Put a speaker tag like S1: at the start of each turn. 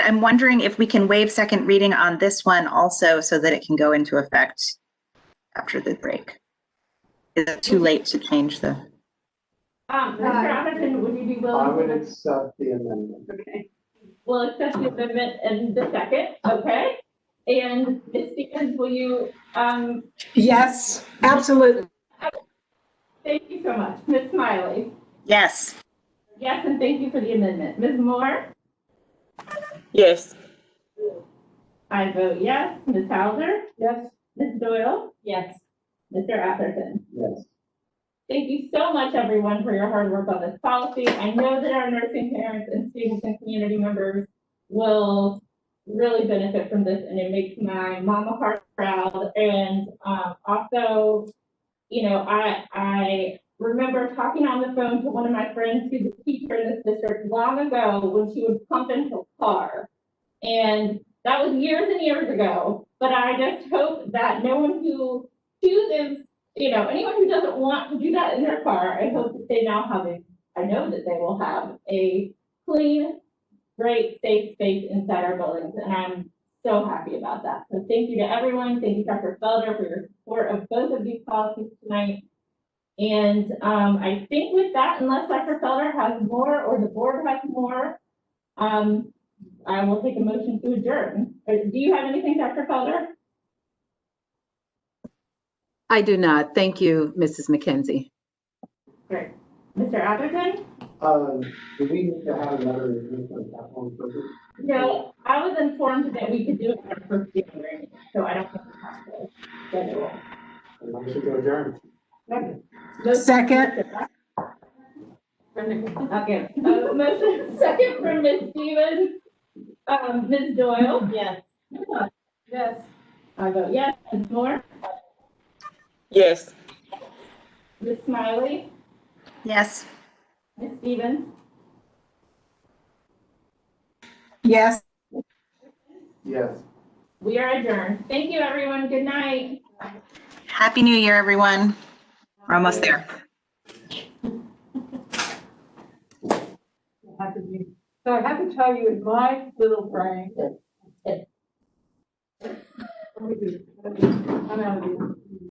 S1: I'm wondering if we can waive second reading on this one also so that it can go into effect after the break. Is it too late to change the?
S2: Um, Mr. Atherton, would you be
S3: I
S2: willing?
S3: would
S2: to-
S3: accept the amendment.
S2: Okay. We'll accept the amendment in the second, okay? And Ms. Stevens, will you, um,
S4: Yes, absolutely.
S2: thank you so much. Ms. Smiley?
S1: Yes.
S2: Yes, and thank you for the amendment. Ms. Moore?
S5: Yes.
S2: I vote yes. Ms. Hauser?
S5: Yes.
S2: Ms. Doyle?
S5: Yes.
S2: Mr. Atherton?
S3: Yes.
S2: Thank you so much, everyone, for your hard work on this policy. I know that our nursing parents and students and community members will really benefit from this, and it makes my mama heart proud. And um, also, you know, I I remember talking on the phone to one of my friends who's a teacher in this district long ago when she would pump into her car, and that was years and years ago. But I just hope that no one who chooses you know, anyone who doesn't want to do that in their car, I hope that they now have a, I know that they will have a clean, great, safe space inside our buildings, and I'm so happy about that. So thank you to everyone, thank you, Dr. Felder, for your support of both of these policies tonight. And, um, I think with that, unless Dr. Felder has more, or the board has more, um, I will take a motion to adjourn. Uh, Do you have anything, Dr. Felder?
S6: I do not. Thank you, Mrs. McKenzie.
S2: Great. Mr. Atherton?
S3: Um, do we need to have another review on that one first?
S2: No, I was informed that we could do it on our first day of learning, so I don't think we have to. schedule it.
S3: And I should go adjourn.
S2: Motion-
S4: Second.
S2: Okay, uh, motion second from Ms. Stevens. Um, Ms. Doyle?
S5: Yes.
S2: Yes. I vote yes. Ms. Moore?
S5: Yes.
S2: Ms. Smiley?
S1: Yes.
S2: Ms. Stevens?
S4: Yes.
S3: Yes.
S2: We are adjourned. Thank you, everyone. Good night.
S1: Happy New Year, everyone. We're almost there.
S7: I have to be- So I have to tell you, in my little brain. Let me do- let me- I'm out of here.